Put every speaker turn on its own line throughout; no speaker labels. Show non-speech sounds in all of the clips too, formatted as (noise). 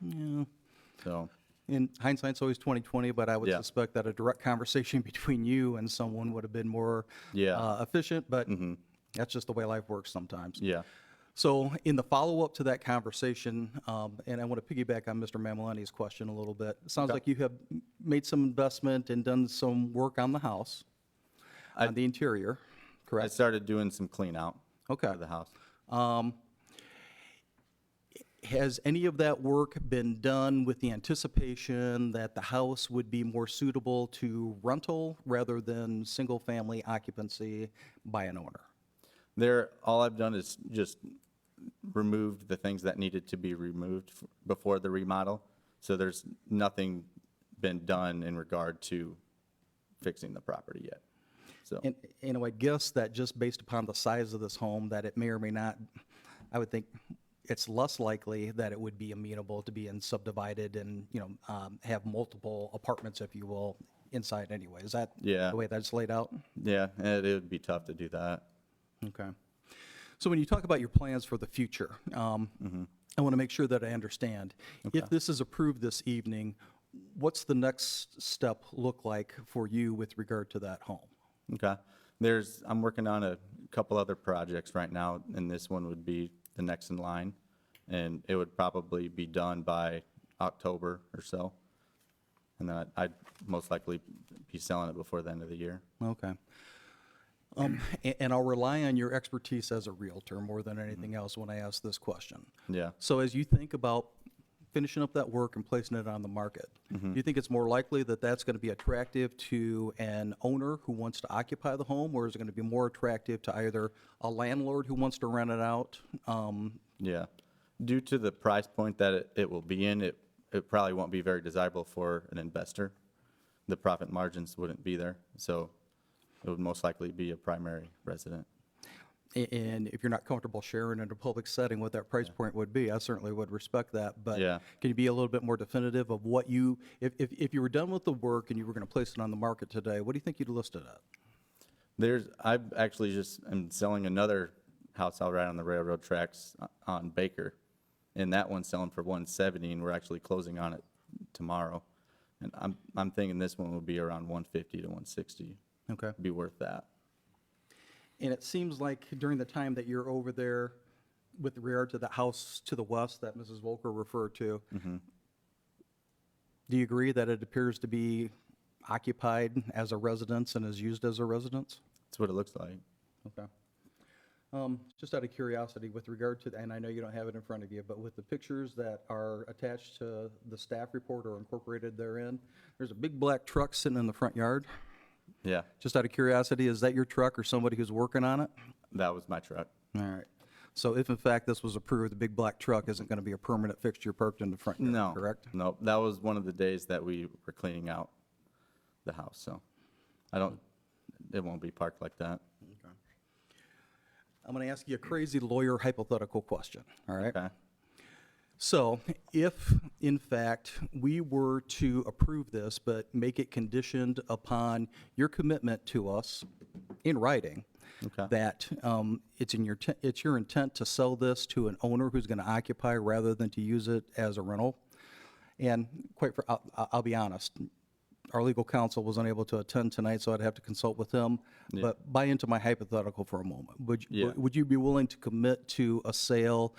Yeah.
So,
In hindsight, it's always 2020, but I would
Yeah.
suspect that a direct conversation (laughs) between you and someone would have been more
Yeah. Mm-hmm.
uh, efficient, but that's just the way life works sometimes.
yeah,
So in the follow-up to that conversation, um, and I want to piggyback on Mr. Mamalani's question a little bit. It Sounds like you have m- made some investment and done some work on the house, on the interior,
I
correct?
started doing some clean out
Okay.
of the house.
Has any of that work been done with the anticipation that the house would be more suitable to rental rather than single-family occupancy by an owner?
There, all I've done is just removed the things that needed to be removed f- before the remodel. So there's nothing been done in regard to fixing the property yet. So,
And, you know, I guess that just based upon the size of this home, that it may or may not, I would think it's less likely that it would be amenable to being subdivided and, you know, um, have multiple apartments, if you will, inside anyway. Is that
Yeah.
the way that's laid out?
yeah, it it would be tough to do that.
Okay. So when you talk about your plans for the future, um, I want to make sure that I understand. If this is approved this evening, what's the next step look like for you with regard to that home?
Okay. There's, I'm working on a couple other projects right now, and this one would be the next in line. And it would probably be done by October or so. And then I'd- I'd most likely be selling it before the end of the year.
Okay. Um, a- And I'll rely on your expertise as a Realtor more than anything else when I ask this question.
Yeah.
So as you think about finishing up that work and placing it on the market, do you think it's more likely that that's going to be attractive to an owner who wants to occupy the home? Or is it going to be more attractive to either a landlord who wants to rent it out? Um,
Yeah. Due to the price point that it, it will be in, it, it probably won't be very desirable for an investor. The profit margins wouldn't be there, so it would most likely be a primary resident.
a- And if you're not comfortable sharing in a public setting what that price point would be, I certainly would respect that. But
Yeah.
can you be a little bit more definitive of what you, if, if, if you were done with the work and you were going to place it on the market today, what do you think you'd list it at?
There's, I actually just am selling another house out right on the railroad tracks o- on Baker. And that one's selling for one seventy and we're actually closing on it tomorrow. And I'm, I'm thinking this one will be around one fifty to one sixty,
Okay.
be worth that.
And it seems like during the time that you're over there with regard to the house to the west that Mrs. Volker referred to, do you agree that it appears to be occupied as a residence and is used as a residence?
That's what it looks like.
Okay. Um, Just out of curiosity, with regard to, and I know you don't have it in front of you, but with the pictures that are attached to the staff report or incorporated therein, there's a big black truck sitting in the front yard.
Yeah,
Just out of curiosity, is that your truck or somebody who's working on it?
that was my truck.
All right. So if in fact this was approved, the big black truck isn't going to be a permanent fixture parked in the front
No.
yard, correct?
No, that was one of the days that we were cleaning out the house, so I don't, it won't be parked like that.
I'm going to ask you a crazy lawyer hypothetical question, all right?
Okay,
So if, in fact, we were to approve this, but make it conditioned upon your commitment to us in writing,
Okay.
that um, it's in your, te- it's your intent to sell this to an owner who's going to occupy rather than to use it as a rental. And quite, fr- I'll, I'll I'll be honest, our legal counsel was unable to attend tonight, so I'd have to consult with him. But buy into my hypothetical for a moment. Would, you-
Yeah.
would you be willing to commit to a sale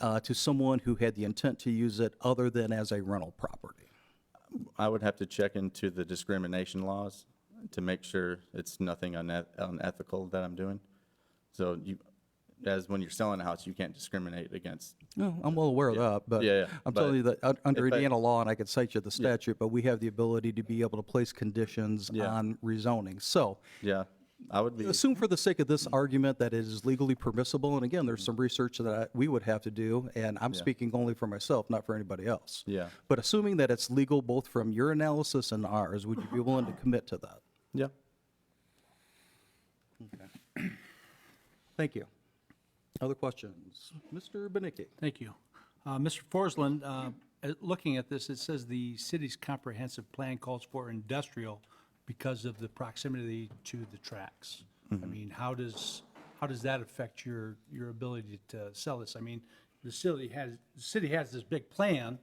uh, to someone who had the intent to use it other than as a rental property?
I would have to check into the discrimination laws to make sure it's nothing uneth- unethical that I'm doing. So you, as when you're selling a house, you can't discriminate against,
No, I'm well aware of that, but
Yeah, yeah,
I'm
but
telling you that un- under
if I-
Indiana law, and I could cite you the statute, but we have the ability to be able to place conditions
Yeah.
on rezoning. So
yeah, I would be,
assume for the sake of this argument that it is legally permissible, and again, there's some research that I- we would have to do, and I'm speaking only for myself, not for anybody else.
Yeah.
But assuming that it's legal both from your analysis and ours, would you be willing to commit to that?
yeah.
Thank you. Other questions? Mr. Benicki?
Thank you. Uh, Mr. Forsland, uh, at- looking at this, it says the city's comprehensive plan calls for industrial because of the proximity to the tracks. I mean, how does, how does that affect your, your ability to sell this? I mean, the city has, the city has this big plan